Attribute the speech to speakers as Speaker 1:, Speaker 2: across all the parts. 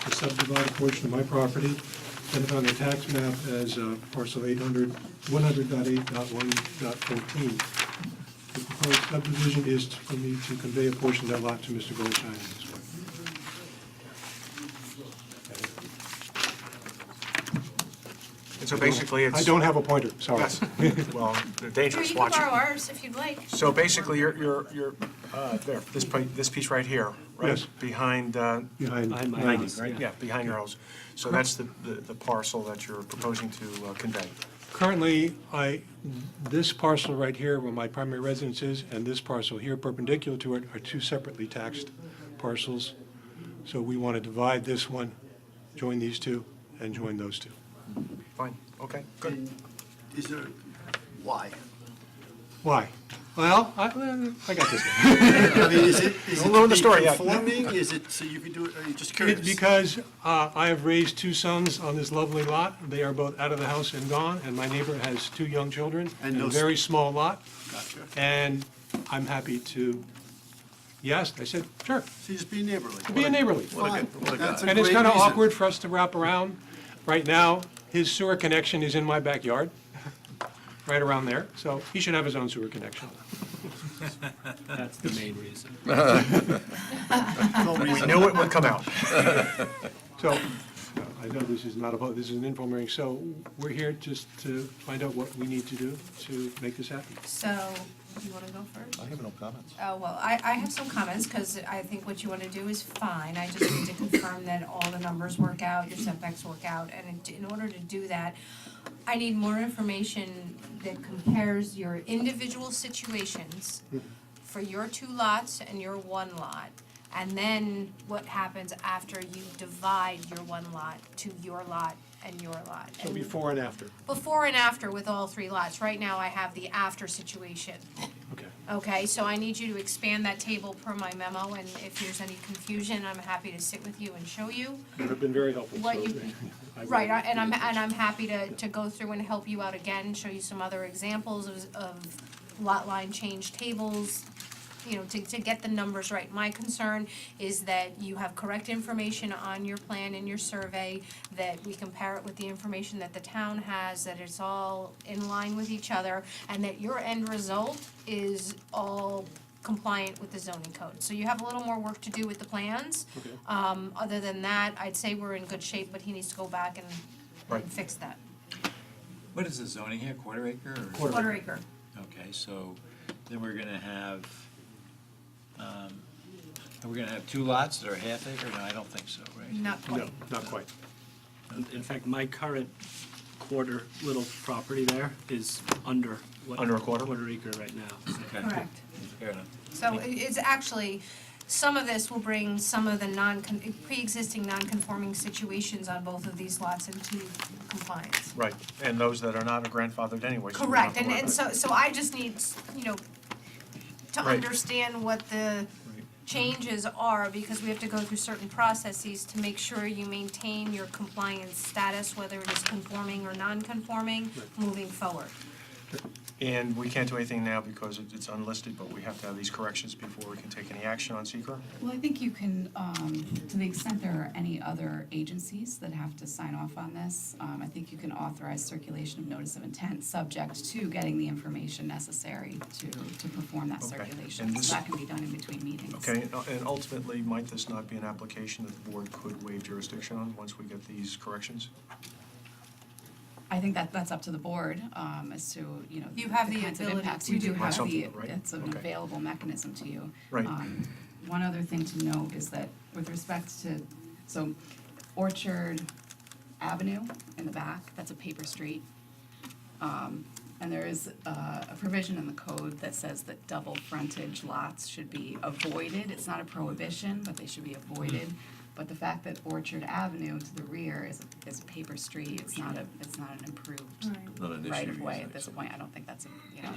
Speaker 1: to subdivide a portion of my property, identified on the tax map as uh, parcel 800, 100.8.1.14. The proposed subdivision is for me to convey a portion of that lot to Mr. Goldstein and his wife.
Speaker 2: And so basically, it's.
Speaker 1: I don't have a pointer, sorry.
Speaker 2: Yes. Well, they're
Speaker 3: Sure,
Speaker 2: dangerous,
Speaker 3: you can
Speaker 2: watch
Speaker 3: borrow
Speaker 2: it.
Speaker 3: ours if you'd like.
Speaker 2: So basically, you're, you're, you're, uh, there, this, pi- this piece right here, right?
Speaker 1: Yes.
Speaker 2: Behind, uh,
Speaker 1: Behind
Speaker 4: Behind my
Speaker 1: my
Speaker 4: house,
Speaker 1: house.
Speaker 2: yeah, behind your house. So that's the, the the parcel that you're proposing to uh, convey.
Speaker 1: Currently, I, this parcel right here, where my primary residence is, and this parcel here perpendicular to it are two separately taxed parcels. So we want to divide this one, join these two, and join those two.
Speaker 2: Fine, okay, good.
Speaker 3: Mm.
Speaker 5: And is there, why?
Speaker 1: Why? Well, I, I got this one.
Speaker 5: I mean, is it, is it
Speaker 2: Don't ruin
Speaker 5: to
Speaker 2: the story
Speaker 5: be
Speaker 2: yet.
Speaker 5: conforming? Is it, so you could do it, are you just curious?
Speaker 1: It's because uh, I have raised two sons on this lovely lot. They are both out of the house and gone, and my neighbor has two young children
Speaker 5: And
Speaker 1: and a
Speaker 5: no s-
Speaker 1: very small lot.
Speaker 5: Gotcha.
Speaker 1: And I'm happy to, yes, I said, sure,
Speaker 5: So you just be neighborly.
Speaker 1: be a neighborly.
Speaker 5: Fine,
Speaker 2: what a
Speaker 5: that's a
Speaker 1: And it's
Speaker 5: great
Speaker 1: kind of
Speaker 5: reason.
Speaker 1: awkward for us to wrap around. Right now, his sewer connection is in my backyard, right around there, so he should have his own sewer connection.
Speaker 4: That's the main reason.
Speaker 5: No
Speaker 2: We
Speaker 5: reason.
Speaker 2: knew it would come out.
Speaker 1: So, uh, I know this is not a vote, this is an informal hearing, so we're here just to find out what we need to do to make this happen.
Speaker 3: So, you want to go first?
Speaker 6: I have no comments.
Speaker 3: Oh, well, I, I have some comments, because I think what you want to do is fine. I just need to confirm that all the numbers work out, your setbacks work out. And in- in order to do that, I need more information that compares your individual situations for your two lots and your one lot. And then what happens after you divide your one lot to your lot and your lot.
Speaker 1: So
Speaker 3: And
Speaker 1: before and after,
Speaker 3: before and after with all three lots. Right now, I have the after situation.
Speaker 1: okay.
Speaker 3: Okay, so I need you to expand that table per my memo, and if there's any confusion, I'm happy to sit with you and show you.
Speaker 1: You've been very helpful, so.
Speaker 3: What you-
Speaker 1: I will-
Speaker 3: Right, I- and I'm, and I'm happy to, to go through and help you out again, show you some other examples of, of lot line change tables, you know, to, to get the numbers right. My concern is that you have correct information on your plan and your survey, that we compare it with the information that the town has, that it's all in line with each other, and that your end result is all compliant with the zoning code. So you have a little more work to do with the plans. Um, other than that, I'd say we're in good shape, but he needs to go back and-
Speaker 2: Right.
Speaker 3: and fix that.
Speaker 7: What is the zoning here, quarter acre or?
Speaker 3: Quarter acre.
Speaker 7: Okay, so then we're gonna have, um, are we gonna have two lots that are half acre? No, I don't think so, right?
Speaker 3: Not
Speaker 1: No,
Speaker 3: quite.
Speaker 1: not quite.
Speaker 4: In fact, my current quarter little property there is under what?
Speaker 2: Under a quarter?
Speaker 4: Quarter acre right now.
Speaker 7: Okay,
Speaker 3: Correct.
Speaker 7: Fair enough.
Speaker 3: So i- it's actually, some of this will bring some of the non, pre-existing non-conforming situations on both of these lots into compliance.
Speaker 2: Right, and those that are not are grandfathered anyway. so we don't have
Speaker 3: Correct,
Speaker 2: to
Speaker 3: and,
Speaker 2: worry
Speaker 3: and
Speaker 2: about
Speaker 3: so, so I just need, you know, to
Speaker 2: Right.
Speaker 3: understand what
Speaker 2: Right.
Speaker 3: the changes are, because we have to go through certain processes to make sure you maintain your compliance status, whether it is conforming or non-conforming, moving forward.
Speaker 2: it. And we can't do anything now because it- it's unlisted, but we have to have these corrections before we can take any action on seeker.
Speaker 8: Well, I think you can, um, to the extent there are any other agencies that have to sign off on this, um, I think you can authorize circulation of notice of intent, subject to getting the information necessary to, to perform that
Speaker 2: Okay.
Speaker 8: circulation.
Speaker 2: And this-
Speaker 8: So that can be done in between meetings.
Speaker 2: Okay, and- uh, and ultimately, might this not be an application that the board could waive jurisdiction on once we get these corrections?
Speaker 8: I think that, that's up to the board, um, as to, you know,
Speaker 3: You have the
Speaker 8: kinds of
Speaker 3: ability
Speaker 8: impacts.
Speaker 3: to
Speaker 8: You
Speaker 3: do
Speaker 8: do
Speaker 3: that.
Speaker 8: have the,
Speaker 2: Something, right?
Speaker 8: it's an
Speaker 2: Okay.
Speaker 8: available mechanism to you.
Speaker 2: Right.
Speaker 8: Um, One other thing to note is that with respect to, so Orchard Avenue in the back, that's a paper street. Um, and there is, uh, a provision in the code that says that double frontage lots should be avoided. It's not a prohibition, but they should be avoided. But the fact that Orchard Avenue to the rear is, is a paper street, it's not a, it's not an improved
Speaker 6: Not an issue,
Speaker 8: right of way
Speaker 6: you
Speaker 8: at this
Speaker 6: say.
Speaker 8: point, I don't think that's a, you know,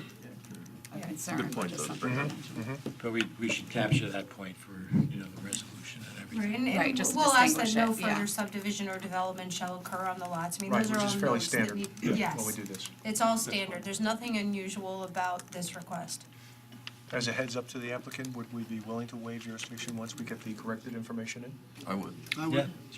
Speaker 8: a concern,
Speaker 6: Good Mm-hmm,
Speaker 8: but
Speaker 6: point,
Speaker 8: just
Speaker 6: though.
Speaker 8: something to mention.
Speaker 7: But we, we should capture that point for, you know, the resolution and everything.
Speaker 3: And,
Speaker 8: Right,
Speaker 3: and
Speaker 8: just
Speaker 3: we'll ask that
Speaker 8: distinguish
Speaker 3: no
Speaker 8: it, yeah.
Speaker 3: further subdivision or development shall occur on the lots, I mean,
Speaker 2: Right,
Speaker 3: those are
Speaker 2: which
Speaker 3: all
Speaker 2: is fairly
Speaker 3: notes that
Speaker 2: standard
Speaker 3: need,
Speaker 2: when we
Speaker 3: yes.
Speaker 2: do this.
Speaker 3: It's all standard, there's nothing unusual about this request.
Speaker 2: As a heads up to the applicant, would we be willing to waive jurisdiction once we get the corrected information in?
Speaker 6: I would.
Speaker 5: I would-